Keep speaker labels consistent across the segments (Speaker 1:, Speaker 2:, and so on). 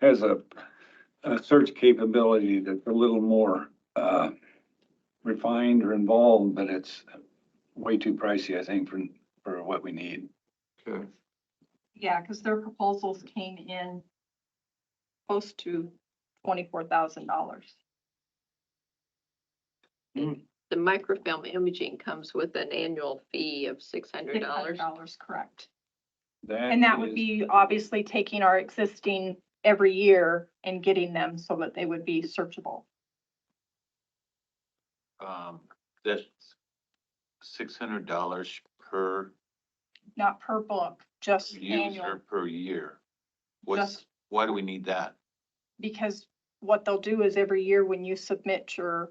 Speaker 1: has a, a search capability that's a little more, uh, refined or involved, but it's way too pricey, I think, for, for what we need.
Speaker 2: Okay,
Speaker 3: Yeah, because their proposals came in close to twenty-four thousand dollars.
Speaker 4: The microfilm imaging comes with an annual fee of six hundred dollars.
Speaker 3: Dollars, correct. And that would
Speaker 1: is-
Speaker 3: be obviously taking our existing every year and getting them so that they would be searchable.
Speaker 5: Um, that's six hundred dollars per
Speaker 3: Not per book, just annual,
Speaker 5: user per year.
Speaker 3: just
Speaker 5: What's, why do we need that?
Speaker 3: because what they'll do is every year when you submit your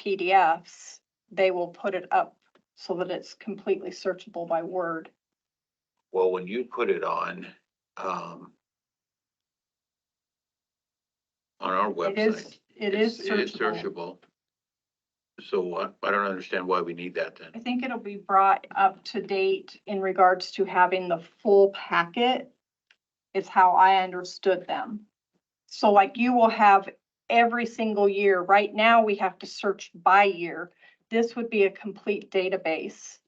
Speaker 3: PDFs, they will put it up so that it's completely searchable by word.
Speaker 5: Well, when you put it on, um, on our
Speaker 3: It
Speaker 5: website.
Speaker 3: is, it is
Speaker 5: it's- It is searchable.
Speaker 3: searchable.
Speaker 5: So what, I don't understand why we need that
Speaker 3: I
Speaker 5: then.
Speaker 3: think it'll be brought up to date in regards to having the full packet is how I understood them. So like you will have every single year, right now we have to search by year. This would be a complete database.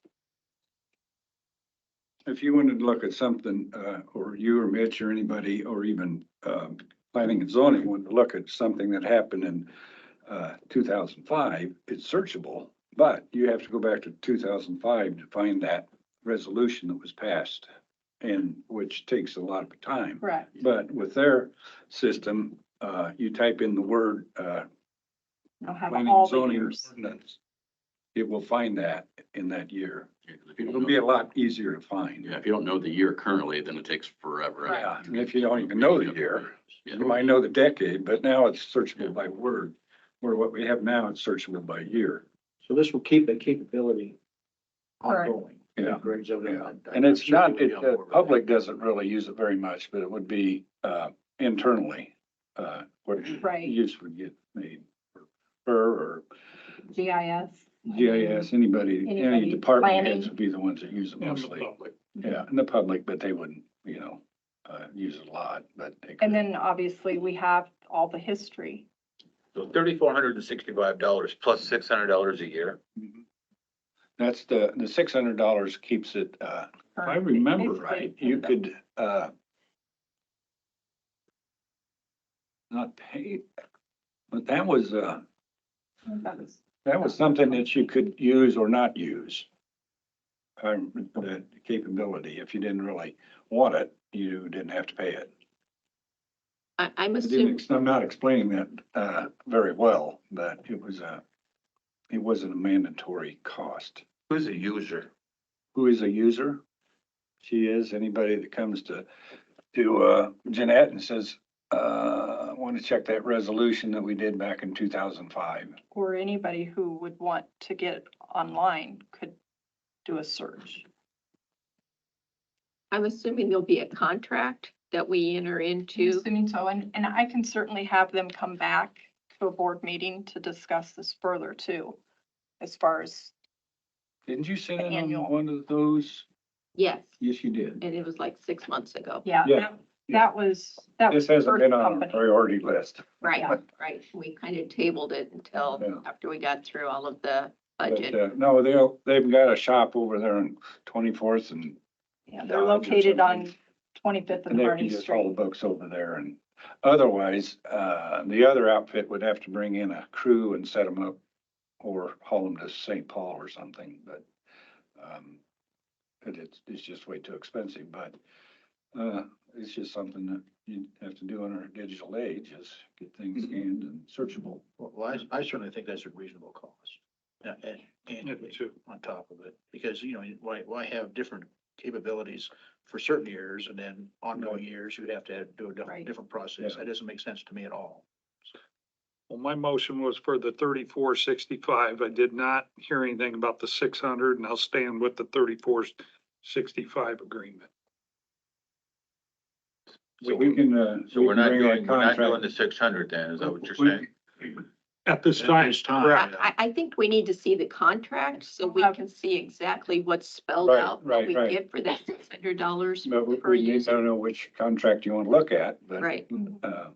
Speaker 1: If you wanted to look at something, uh, or you or Mitch or anybody, or even, um, planning and zoning wanted to look at something that happened in, uh, two thousand five, it's searchable, but you have to go back to two thousand five to find that resolution that was passed. And which takes a lot of time.
Speaker 3: Correct.
Speaker 1: But with their system, uh, you type in the word, uh,
Speaker 3: I'll have
Speaker 1: planning
Speaker 3: all
Speaker 1: and
Speaker 3: the
Speaker 1: zoning
Speaker 3: years.
Speaker 1: ordinance. It will find that in that year.
Speaker 2: Yeah, 'cause if you
Speaker 1: It'll
Speaker 2: don't
Speaker 1: be
Speaker 2: know,
Speaker 1: a lot easier to find.
Speaker 2: yeah, if you don't know the year currently, then it takes forever.
Speaker 3: Right.
Speaker 1: Yeah, and if you don't even know the year,
Speaker 2: Yeah.
Speaker 1: You might know the decade, but now it's searchable
Speaker 2: Yeah.
Speaker 1: by word, where what we have now, it's searchable by year.
Speaker 6: So this will keep the capability
Speaker 3: Correct.
Speaker 6: ongoing.
Speaker 1: Yeah,
Speaker 6: Brings it
Speaker 1: yeah.
Speaker 6: up.
Speaker 1: And it's not,
Speaker 6: Certainly
Speaker 1: it,
Speaker 6: on
Speaker 1: the
Speaker 6: board with that.
Speaker 1: public doesn't really use it very much, but it would be, uh, internally, uh, where
Speaker 3: Right.
Speaker 1: use would get made. Or, or
Speaker 3: GIS.
Speaker 1: GIS, anybody,
Speaker 3: Anybody
Speaker 1: any department heads
Speaker 3: planning.
Speaker 1: would be the ones that use it mostly.
Speaker 3: Mm-hmm.
Speaker 1: Yeah, in the public, but they wouldn't, you know, uh, use it a lot, but. they could.
Speaker 3: And then obviously we have all the history.
Speaker 5: So thirty-four hundred and sixty-five dollars plus six hundred dollars a year.
Speaker 1: Mhm. That's the, the six hundred dollars keeps it, uh, if I remember
Speaker 3: Basically,
Speaker 1: right, you could, uh, not pay, but that was, uh,
Speaker 3: that is-
Speaker 1: that was something that you could use or not use. Um, the capability, if you didn't really want it, you didn't have to pay it.
Speaker 4: I, I'm
Speaker 1: I didn't,
Speaker 4: assuming,
Speaker 1: ex- I'm not explaining that, uh, very well, but it was a, it wasn't a mandatory cost.
Speaker 5: Who's a user?
Speaker 1: who is a user. She is, anybody that comes to, to, uh, Jeanette and says, uh, I want to check that resolution that we did back in two thousand five.
Speaker 3: Or anybody who would want to get online could do a search.
Speaker 4: I'm assuming there'll be a contract that we enter
Speaker 3: I'm
Speaker 4: into.
Speaker 3: Assuming so, and, and I can certainly have them come back to a board meeting to discuss this further too, as far as,
Speaker 1: Didn't you say that on
Speaker 3: Annual.
Speaker 1: one of those?
Speaker 4: Yes,
Speaker 1: Yes, you did.
Speaker 4: and it was like six months ago.
Speaker 3: yeah,
Speaker 1: Yeah,
Speaker 3: that- that was, that was.
Speaker 1: This hasn't
Speaker 3: first
Speaker 1: been on our
Speaker 3: company.
Speaker 1: priority list.
Speaker 4: Right,
Speaker 3: Yeah.
Speaker 4: right. We kind of tabled it
Speaker 1: Yeah.
Speaker 4: until after we got through all of the
Speaker 1: But,
Speaker 4: budget.
Speaker 1: uh, no, they'll, they've got a shop over there on twenty-fourth and,
Speaker 3: Yeah, they're
Speaker 1: Dodge or
Speaker 3: located on
Speaker 1: something.
Speaker 3: Twenty-Fifth and
Speaker 1: and they can
Speaker 3: Harney
Speaker 1: just haul the
Speaker 3: Street.
Speaker 1: books over there and otherwise, uh, the other outfit would have to bring in a crew and set them up or haul them to St. Paul or something, but, um, but it's, it's just way too expensive, but, uh, it's just something that you have to do in our digital age is get things
Speaker 5: Mm-hmm.
Speaker 1: scanned and searchable.
Speaker 6: Well, I, I certainly think that's a reasonable cost. Yeah, and,
Speaker 2: Yeah,
Speaker 6: and
Speaker 2: me too.
Speaker 6: on top of it, because, you know, why, why have different capabilities for certain years and then ongoing years, you'd have to have- do a
Speaker 3: Right.
Speaker 6: different, different process.
Speaker 1: Yeah.
Speaker 6: That doesn't make sense to me at all.
Speaker 7: Well, my motion was for the thirty-four sixty-five. I did not hear anything about the six hundred and I'll stand with the thirty-four sixty-five agreement.
Speaker 1: So we can, uh.
Speaker 5: So
Speaker 1: we
Speaker 5: we're
Speaker 1: can
Speaker 5: not
Speaker 1: bring that
Speaker 5: doing, we're not doing
Speaker 1: contract-
Speaker 5: the six hundred then, is that what you're
Speaker 1: We-
Speaker 5: saying?
Speaker 7: At this
Speaker 6: At
Speaker 7: time,
Speaker 6: this time,
Speaker 7: correct.
Speaker 6: yeah.
Speaker 4: I, I think we need to see the contract so we
Speaker 3: Okay.
Speaker 4: can see exactly what's spelled
Speaker 1: Right,
Speaker 4: out.
Speaker 1: right,
Speaker 4: What we
Speaker 1: right.
Speaker 4: get for that six hundred dollars
Speaker 1: But we-
Speaker 4: per
Speaker 1: we, I
Speaker 4: user.
Speaker 1: don't know which contract you want to look at, but.
Speaker 4: Right.
Speaker 1: Uh,